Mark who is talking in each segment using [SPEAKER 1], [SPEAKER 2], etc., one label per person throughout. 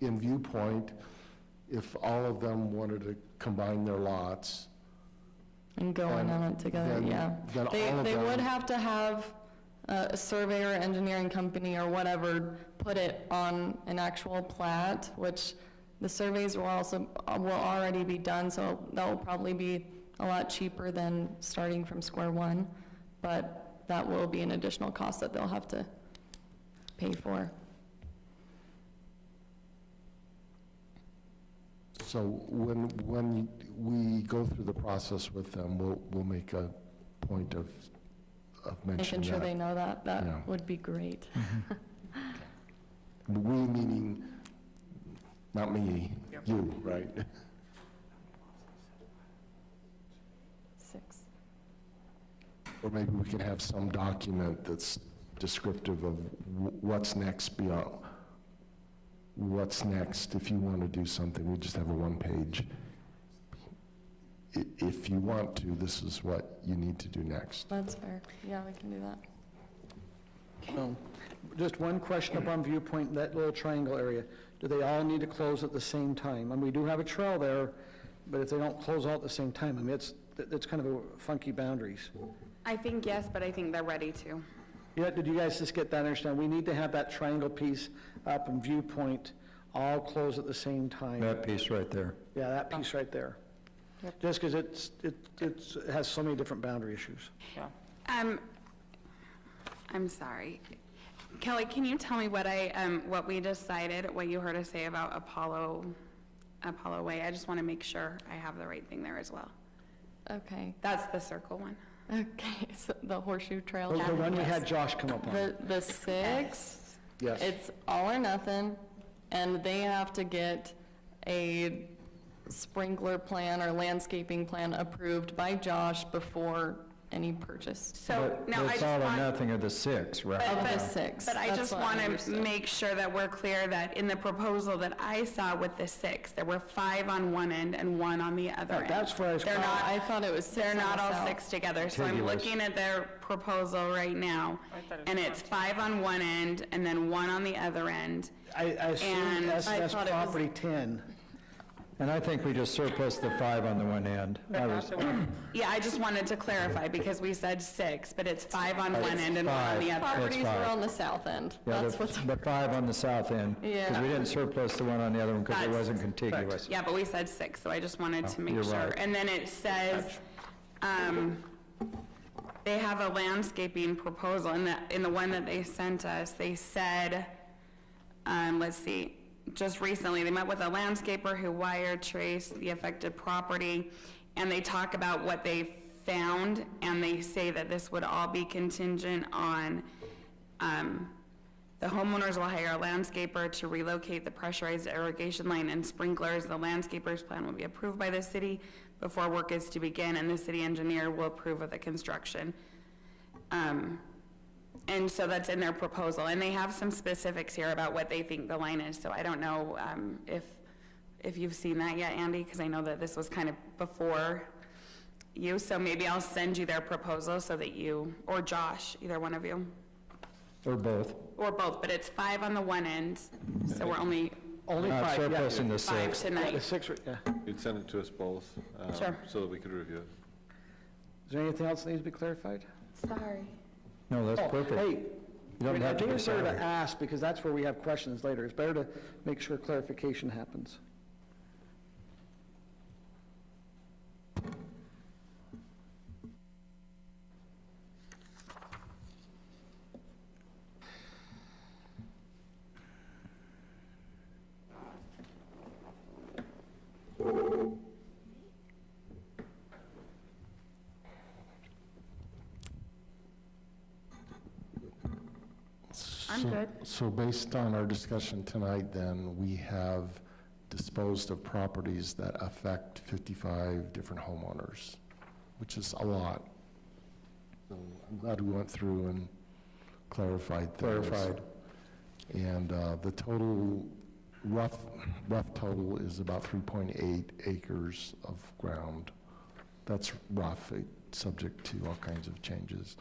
[SPEAKER 1] in viewpoint, if all of them wanted to combine their lots,
[SPEAKER 2] And going
[SPEAKER 1] Then-
[SPEAKER 2] on it together,
[SPEAKER 1] then-
[SPEAKER 2] yeah.
[SPEAKER 1] then
[SPEAKER 2] They,
[SPEAKER 1] all of
[SPEAKER 2] they
[SPEAKER 1] them-
[SPEAKER 2] would have to have uh, a surveyor, engineering company, or whatever, put it on an actual plat, which the surveys will also, will already be done, so that will probably be a lot cheaper than starting from square one, but that will be an additional cost that they'll have to pay for.
[SPEAKER 1] so when, when we go through the process with them, we'll, we'll make a point of, of
[SPEAKER 2] Making
[SPEAKER 1] mentioning
[SPEAKER 2] sure they
[SPEAKER 1] that.
[SPEAKER 2] know that,
[SPEAKER 1] Yeah.
[SPEAKER 2] that would be great.
[SPEAKER 1] We meaning, not me, you, right?
[SPEAKER 2] Six.
[SPEAKER 1] Or maybe we can have some document that's descriptive of wh- what's next beyond, what's next if you want to do something, we just have a one-page. I- If you want to, this is what you need to do next.
[SPEAKER 2] That's fair. Yeah, we can do that.
[SPEAKER 3] Um, Just one question up on Viewpoint, that little triangle area. Do they all need to close at the same time? And we do have a trail there, but if they don't close all at the same time, I mean, it's, it's kind of a funky boundaries.
[SPEAKER 4] I think yes, but I think they're ready to.
[SPEAKER 3] Yeah, did you guys just get that, understand? We need to have that triangle piece up in Viewpoint all close at the same time.
[SPEAKER 5] That piece right there.
[SPEAKER 3] Yeah, that piece right there.
[SPEAKER 2] Yep.
[SPEAKER 3] Just because it's, it, it's, it has so many different boundary issues.
[SPEAKER 4] Um, I'm sorry. Kelly, can you tell me what I, um, what we decided, what you heard us say about Apollo, Apollo Way? I just want to make sure I have the right thing there as well.
[SPEAKER 2] Okay.
[SPEAKER 4] That's the circle one.
[SPEAKER 2] Okay, so the horseshoe trail.
[SPEAKER 3] The the one we had
[SPEAKER 2] Yes.
[SPEAKER 3] Josh come up on.
[SPEAKER 2] The, the six,
[SPEAKER 1] Yes.
[SPEAKER 2] it's all or nothing, and they have to get a sprinkler plan or landscaping plan approved by Josh before any purchase.
[SPEAKER 4] So,
[SPEAKER 5] But
[SPEAKER 4] no, I
[SPEAKER 5] It's
[SPEAKER 4] just
[SPEAKER 5] all
[SPEAKER 4] want.
[SPEAKER 5] or nothing of the six,
[SPEAKER 4] But-
[SPEAKER 5] right?
[SPEAKER 2] Of the
[SPEAKER 4] but-
[SPEAKER 2] six,
[SPEAKER 4] But I
[SPEAKER 2] that's
[SPEAKER 4] just
[SPEAKER 2] what I
[SPEAKER 4] want to
[SPEAKER 2] understood.
[SPEAKER 4] make sure that we're clear that in the proposal that I saw with the six, there were five on one end and one on the other
[SPEAKER 3] That-
[SPEAKER 4] end.
[SPEAKER 3] that's where I was
[SPEAKER 4] They're
[SPEAKER 3] kinda-
[SPEAKER 4] not,
[SPEAKER 2] Uh, I thought it was six
[SPEAKER 4] they're
[SPEAKER 2] on
[SPEAKER 4] not
[SPEAKER 2] the
[SPEAKER 4] all
[SPEAKER 2] south.
[SPEAKER 4] six together, so I'm
[SPEAKER 5] Contiguous.
[SPEAKER 4] looking at their proposal right now, and it's five on one end and then one on the other end.
[SPEAKER 3] I, I assume
[SPEAKER 4] And
[SPEAKER 3] that's,
[SPEAKER 2] I
[SPEAKER 3] that's
[SPEAKER 2] thought it was-
[SPEAKER 3] property 10.
[SPEAKER 5] And I think we just surplus the five on the one end. I was,
[SPEAKER 4] Yeah, I just wanted to clarify, because we said six, but it's five on
[SPEAKER 5] It's
[SPEAKER 4] one end and one on the
[SPEAKER 5] five.
[SPEAKER 4] other.
[SPEAKER 5] That's
[SPEAKER 2] Properties were
[SPEAKER 5] fine.
[SPEAKER 2] on the south end,
[SPEAKER 5] yeah,
[SPEAKER 2] that's what's,
[SPEAKER 5] the the five on the south end. Because
[SPEAKER 2] Yeah.
[SPEAKER 5] we didn't surplus the one on the other one because it
[SPEAKER 4] That's-
[SPEAKER 5] wasn't contiguous. Oh,
[SPEAKER 4] Yeah, but we said six, so I just wanted to make
[SPEAKER 5] you're
[SPEAKER 4] sure.
[SPEAKER 5] right.
[SPEAKER 4] And then it says, um, they have a landscaping proposal, in the, in the one that they sent us, they said, um, let's see, just recently, they met with a landscaper who wire traced the affected property, and they talk about what they found, and they say that this would all be contingent on, um, the homeowners will hire a landscaper to relocate the pressurized irrigation line and sprinklers. The landscaper's plan will be approved by the city before work is to begin, and the city engineer will approve of the construction. Um, And so that's in their proposal, and they have some specifics here about what they think the line is, so I don't know um, if, if you've seen that yet, Andy, because I know that this was kind of before you, so maybe I'll send you their proposal so that you, or Josh, either one of you.
[SPEAKER 5] Or both.
[SPEAKER 4] Or both, but it's five on the one end, so we're only
[SPEAKER 3] Only
[SPEAKER 5] Not
[SPEAKER 3] five, yeah.
[SPEAKER 5] surplusing the
[SPEAKER 4] five
[SPEAKER 5] six.
[SPEAKER 3] Yeah, the
[SPEAKER 4] tonight.
[SPEAKER 3] six, yeah.
[SPEAKER 6] You'd send it to us both, um,
[SPEAKER 4] Sure.
[SPEAKER 6] so that we could review it.
[SPEAKER 3] Is there anything else that needs to be clarified?
[SPEAKER 4] Sorry.
[SPEAKER 5] No, that's
[SPEAKER 3] Oh,
[SPEAKER 5] perfect.
[SPEAKER 3] Hey,
[SPEAKER 5] You don't
[SPEAKER 3] I
[SPEAKER 5] have to
[SPEAKER 3] think
[SPEAKER 5] be
[SPEAKER 3] it's better to
[SPEAKER 5] sorry.
[SPEAKER 3] ask, because that's where we have questions later. It's better to make sure clarification happens.
[SPEAKER 4] I'm
[SPEAKER 1] So-
[SPEAKER 4] good.
[SPEAKER 1] So based on our discussion tonight, then, we have disposed of properties that affect 55 different homeowners, which is a lot. So I'm glad we went through and clarified things.
[SPEAKER 5] Clarified.
[SPEAKER 1] And uh, the total, rough, rough total is about 3.8 acres of ground. That's rough, eh, subject to all kinds of changes.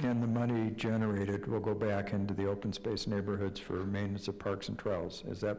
[SPEAKER 5] And the money generated will go back into the open space neighborhoods for maintenance of parks and trails. Is that